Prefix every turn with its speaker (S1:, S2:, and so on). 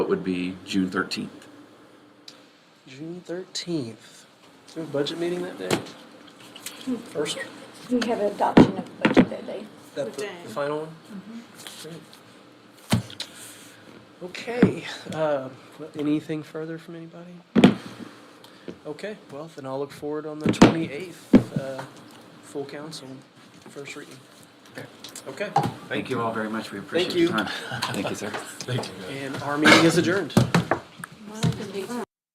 S1: would be June 13th.
S2: June thirteenth. Do we have a budget meeting that day? First,
S3: We have adoption of budget that day.
S2: that the,
S4: Okay.
S2: the final one? Great. Okay, uh, well, anything further from anybody? Okay, well, then I'll look forward on the twenty-eighth, uh, full council, first reading. Okay,
S1: Thank you all very much. We appreciate
S2: you.
S1: your time. Thank you, sir.
S2: and our meeting is adjourned.